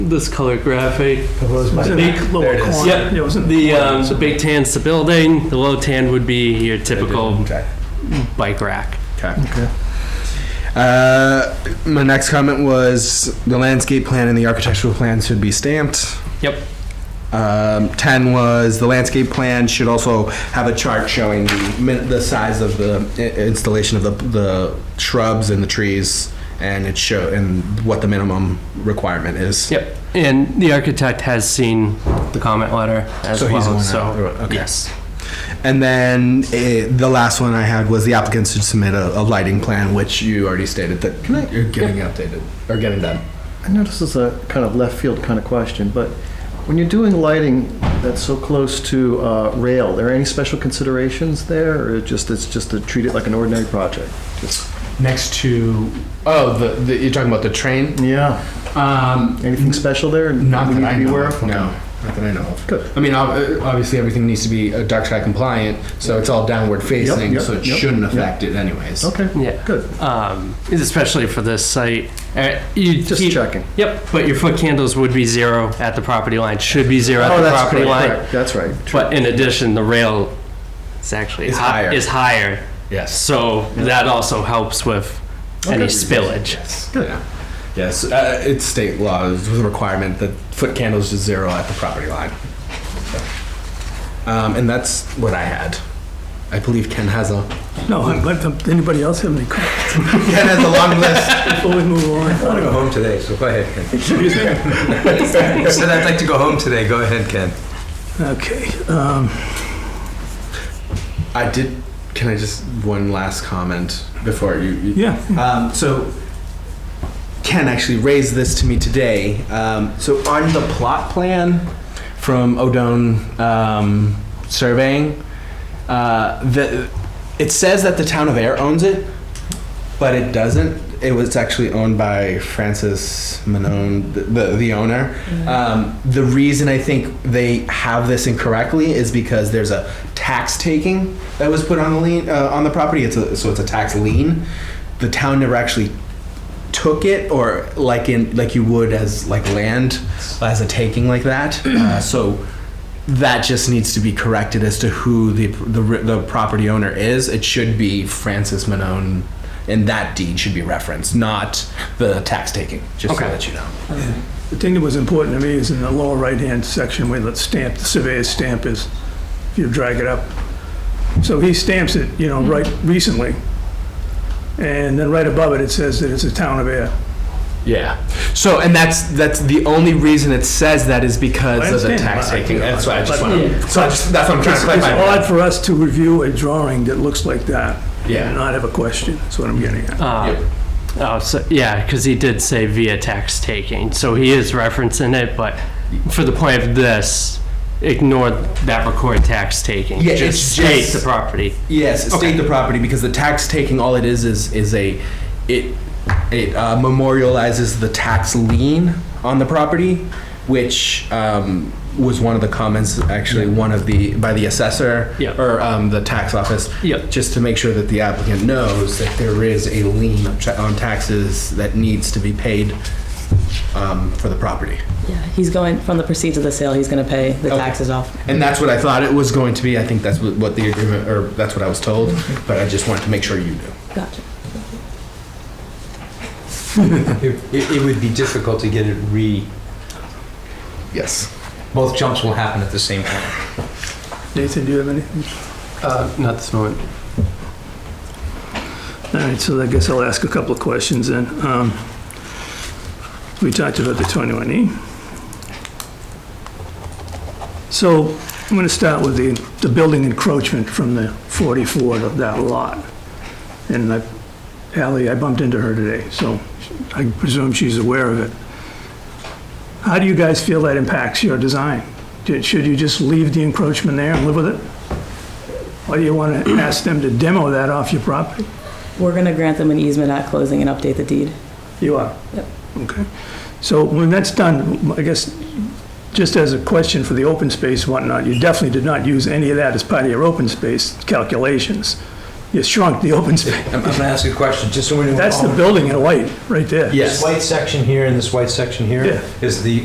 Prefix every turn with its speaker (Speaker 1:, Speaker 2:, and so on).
Speaker 1: this color graphic.
Speaker 2: Big
Speaker 3: There
Speaker 2: lower
Speaker 3: it is.
Speaker 2: corner.
Speaker 1: Yep.
Speaker 2: Yeah, it was in
Speaker 1: The
Speaker 2: corner.
Speaker 1: um, the big tan's the building. The low tan would be your typical
Speaker 3: Okay.
Speaker 1: bike rack.
Speaker 3: Okay. Uh, my next comment was the landscape plan and the architectural plan should be stamped.
Speaker 1: Yep.
Speaker 3: Um, ten was the landscape plan should also have a chart showing the min- the size of the i- installation of the the shrubs and the trees, and it show and what the minimum requirement is.
Speaker 1: Yep. And the architect has seen the comment letter as
Speaker 3: So
Speaker 1: well.
Speaker 3: he's going out.
Speaker 1: so
Speaker 3: Okay.
Speaker 1: yes.
Speaker 3: And then eh, the last one I had was the applicant should submit a, a lighting plan, which you already stated that
Speaker 2: Can I-
Speaker 3: you're getting updated or getting done.
Speaker 4: I know this is a kind of left field kind of question, but when you're doing lighting that's so close to uh, rail, are there any special considerations there, or it just it's just to treat it like an ordinary project? Just-
Speaker 2: Next to,
Speaker 3: Oh, the, the you're talking about the train?
Speaker 4: Yeah,
Speaker 2: um,
Speaker 4: anything special there?
Speaker 2: Not
Speaker 4: we
Speaker 2: that
Speaker 4: need
Speaker 2: I
Speaker 4: to be
Speaker 2: know
Speaker 4: aware
Speaker 2: of,
Speaker 4: of?
Speaker 3: No, not that I know of.
Speaker 4: Good.
Speaker 3: I mean, ob- uh, obviously, everything needs to be uh, dark sky compliant, so it's all downward facing,
Speaker 4: yep,
Speaker 3: so it
Speaker 4: yep,
Speaker 3: shouldn't affect it anyways.
Speaker 4: Okay,
Speaker 1: Yeah.
Speaker 4: good,
Speaker 1: Um, especially for this site. Uh, you
Speaker 4: just
Speaker 1: keep-
Speaker 4: checking.
Speaker 1: Yep. But your foot candles would be zero at the property line. Should be zero at
Speaker 4: Oh,
Speaker 1: the
Speaker 4: that's
Speaker 1: property line.
Speaker 4: correct, correct, That's right.
Speaker 1: But in addition, the rail is actually
Speaker 3: Is
Speaker 1: hi-
Speaker 3: higher.
Speaker 1: Is higher.
Speaker 3: Yes.
Speaker 1: So that also helps with any spillage.
Speaker 3: Yes. Yeah. Yes. Uh, it's state law is the requirement that foot candles to zero at the property line. Um, and that's what I had. I believe Ken has a
Speaker 5: No, I'm glad, to- anybody else have any comments
Speaker 3: Ken has a long list.
Speaker 5: before we move on?
Speaker 6: I want to go home today, so go ahead, Ken. I said I'd like to go home today. Go ahead, Ken.
Speaker 5: Okay, um,
Speaker 3: I did. Can I just one last comment before you? you
Speaker 5: yeah,
Speaker 3: Um, so Ken actually raised this to me today. Um, so on the plot plan from Odone um, surveying, uh, the, it says that the town of Air owns it, but it doesn't. It was actually owned by Francis Manone, the, the, the owner. Um, the reason I think they have this incorrectly is because there's a tax taking that was put on the lien uh, on the property. It's a, so it's a tax lien. The town never actually took it or like in like you would as like land as a taking like that uh, so that just needs to be corrected as to who the, the the property owner is it should be francis Manone, and that deed should be referenced not the tax taking just
Speaker 1: Okay.
Speaker 3: so that you know
Speaker 5: the thing that was important to me is in the lower right-hand section where the stamp, the surveyor's stamp is, if you drag it up. So he stamps it, you know, right recently, and then right above it, it says that it's a town of air.
Speaker 3: yeah so and that's that's the only reason it says that is because
Speaker 5: I
Speaker 3: of the
Speaker 5: understand.
Speaker 3: tax
Speaker 5: I-
Speaker 3: taking that's why i just
Speaker 5: but-
Speaker 3: want to so I just, that's what i'm trying
Speaker 5: It's
Speaker 3: to
Speaker 5: it's
Speaker 3: clarify
Speaker 5: odd for us to review a drawing that looks like that
Speaker 3: Yeah.
Speaker 5: and not have a question, that's what I'm getting at.
Speaker 1: Uh, Oh, so, yeah, because he did say via tax taking, so he is referencing it, but for the point of this, ignore that record tax taking.
Speaker 3: Yeah,
Speaker 1: Just
Speaker 3: it's
Speaker 1: state
Speaker 3: just-
Speaker 1: the property.
Speaker 3: Yes, state the property because the tax taking all it is is is a it it uh, memorializes the tax lien on the property, which um, was one of the comments actually one of the by the assessor
Speaker 1: Yeah.
Speaker 3: or um, the tax office.
Speaker 1: Yeah.
Speaker 3: Just to make sure that the applicant knows that there is a lien of ta- on taxes that needs to be paid um, for the property.
Speaker 7: Yeah, he's going, from the proceeds of the sale, he's gonna pay the
Speaker 3: Okay.
Speaker 7: taxes off.
Speaker 3: And that's what I thought it was going to be. I think that's what what the agreement or that's what I was told, but I just wanted to make sure you knew.
Speaker 7: Gotcha.
Speaker 6: It, it, it would be difficult to get it re.
Speaker 3: Yes.
Speaker 6: Both jumps will happen at the same time.
Speaker 5: Nathan, do you have anything?
Speaker 1: Uh, Not this moment.
Speaker 5: All right, so I guess I'll ask a couple of questions then. Um, We talked about the E. 21E. So I'm going to start with the, the building encroachment from the 44 of that lot. And I, Ally, I bumped into her today, so I presume she's aware of it. How do you guys feel that impacts your design? Did- Should you just leave the encroachment there and live with it? Or do you want to ask them to demo that off your property?
Speaker 7: We're gonna grant them an easement at closing and update the deed.
Speaker 5: You are?
Speaker 7: Yep.
Speaker 5: Okay. So when that's done, I guess, just as a question for the open space and whatnot, you definitely did not use any of that as part of your open space calculations. You shrunk the open space.
Speaker 6: I'm, I'm gonna ask you a question, just so we know.
Speaker 5: That's the building in white, right there.
Speaker 6: This white section here and this white section here
Speaker 5: Yeah.
Speaker 6: is the